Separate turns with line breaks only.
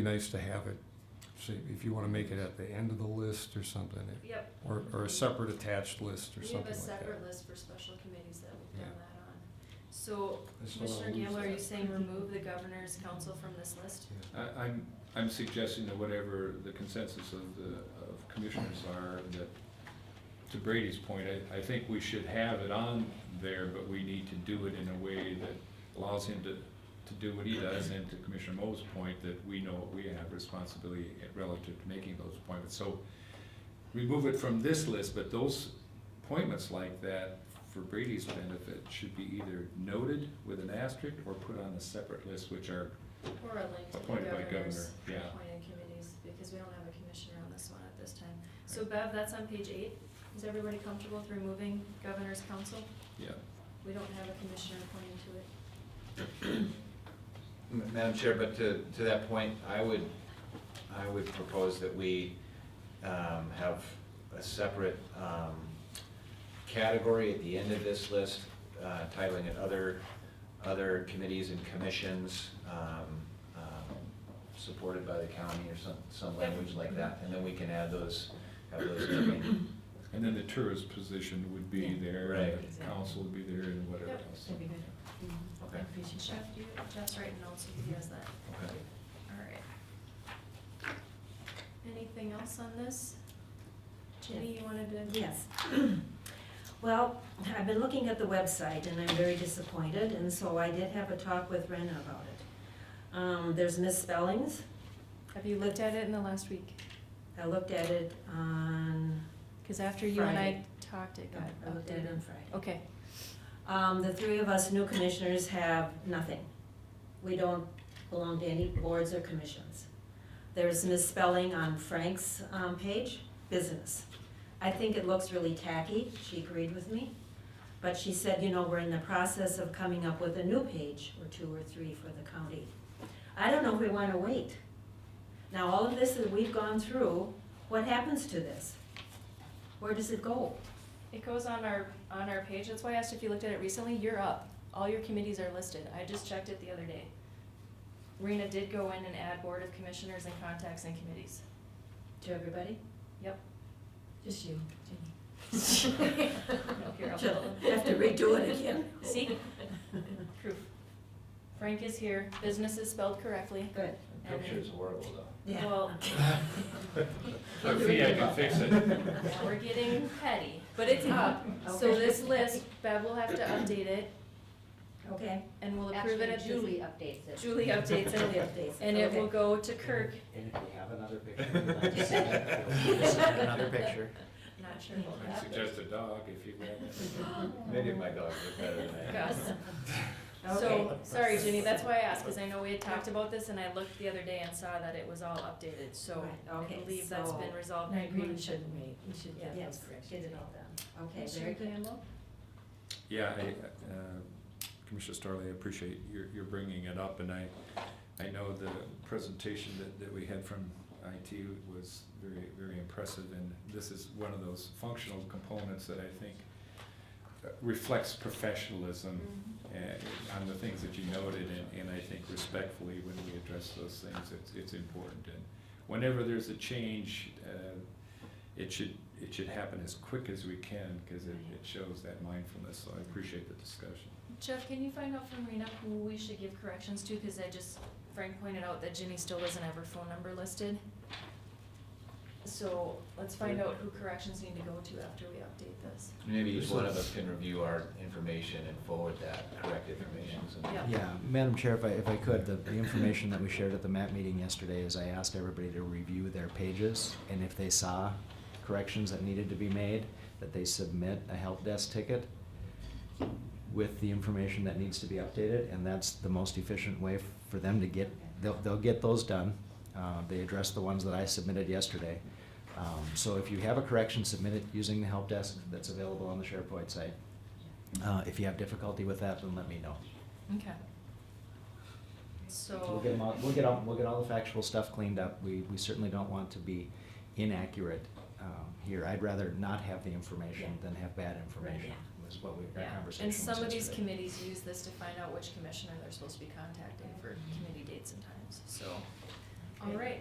Be nice to have it, see, if you wanna make it at the end of the list or something,
Yep,
or, or a separate attached list or
we have
something
a
like that.
separate list for special committees that we've done
Yeah.
that on. So
Let's not
Commissioner
lose
Gamble, are you
that.
saying remove the governor's council from this list?
Yeah.
I, I'm, I'm suggesting that whatever the consensus of the, of commissioners are, that, to Brady's point, I, I think we should have it on there, but we need to do it in a way that allows him to, to do what he does, and to Commissioner Mo's point, that we know what we have responsibility relative to making those appointments, so remove it from this list, but those appointments like that, for Brady's benefit, should be either noted with an asterisk or put on a separate list, which are
Or a link to the
Appointed by
governor's
governor, yeah.
appointed committees, because we don't have a commissioner on this one at this time. So Bev, that's on page eight. Is everybody comfortable with removing governor's council?
Yeah,
We don't have a commissioner appointed to it.
Ma- Madam Chair, but to, to that point, I would, I would propose that we um, have a separate um, category at the end of this list, uh, titling it other, other committees and commissions um, um, supported by the county or some, some language like that. And then we can add those, have those named.
and then the tourist position would be
Yeah.
there, and the
Right.
council would be there, and whatever
Yep.
else.
That'd be good.
Okay.
Jeff, do you, Jeff's writing notes, if he has that.
Okay.
All right. Anything else on this? Jenny, you wanted to?
Yes. Well, I've been looking at the website and I'm very disappointed, and so I did have a talk with Rena about it. Um, there's misspellings.
Have you looked at it in the last week?
I looked at it on,
Cause after you and I
Friday.
talked, it got
I looked at it
updated.
on Friday.
Okay,
Um, the three of us new commissioners have nothing. We don't belong to any boards or commissions. There's misspelling on Frank's, um, page, business. I think it looks really tacky, she agreed with me. But she said, you know, we're in the process of coming up with a new page, or two or three for the county. I don't know if we wanna wait. Now, all of this that we've gone through, what happens to this? Where does it go?
it goes on our, on our page, that's why I asked if you looked at it recently, you're up, all your committees are listed, I just checked it the other day. Rena did go in and add board of commissioners and contacts and committees,
To everybody?
yep.
Just you, Jenny.
Here, I'll-
She'll have to redo it again.
See? Proof. Frank is here, business is spelled correctly.
Good.
The Picture is horrible, though.
Yeah.
Well,
So Fee, I can fix it.
now we're getting petty, but it's up, so
Okay.
this list, Bev will have to update it,
Okay.
and we'll approve it
Actually,
at this.
Julie updates it.
Julie updates
Julie
it,
updates it,
and it will
okay.
go to Kirk.
And if you have another picture, let's just send another picture.
Not sure.
he'll
I suggest a dog if you want.
Maybe my dog looked better than I.
Gus.
Okay.
So, sorry Ginny, that's why I asked, cause I know we had talked about this, and I looked the other day and saw that it was all updated, so
Right,
I
okay,
believe that's
so-
been resolved.
And I agree, we shouldn't wait, we should get
Yes,
those corrections.
get it all done. Okay,
Commissioner
very good.
Campbell?
Yeah, I, uh, Commissioner Starley, I appreciate your, your bringing it up, and I, I know the presentation that, that we had from IT was very, very impressive, and this is one of those functional components that I think uh, reflects professionalism uh, on the things that you noted, and, and I think respectfully, when we address those things, it's, it's important. And whenever there's a change, uh, it should, it should happen as quick as we can, because it, it shows that mindfulness, so I appreciate the discussion.
Jeff, can you find out from Rena who we should give corrections to, cause I just, Frank pointed out that Ginny still doesn't have her phone number listed. So, let's find out who corrections need to go to after we update this.
Maybe each one of us can review our information and forward that correct information. so-
Yeah.
Yeah, Madam Chair, if I, if I could, the, the information that we shared at the MAP meeting yesterday is I asked everybody to review their pages, and if they saw corrections that needed to be made, that they submit a help desk ticket with the information that needs to be updated, and that's the most efficient way for them to get, they'll, they'll get those done. Uh, they addressed the ones that I submitted yesterday. Um, so if you have a correction, submit it using the help desk that's available on the SharePoint site. Uh, if you have difficulty with that, then let me know.
Okay. So.
We'll get 'em all, we'll get all, we'll get all the factual stuff cleaned up. We, we certainly don't want to be inaccurate, um, here. I'd rather not have the information
Yeah.
than have bad information,
yeah.
was what we, our
Yeah,
conversation
and
was
some of these
yesterday.
committees use this to find out which commissioner they're supposed to be contacting for committee dates and times, so. All right,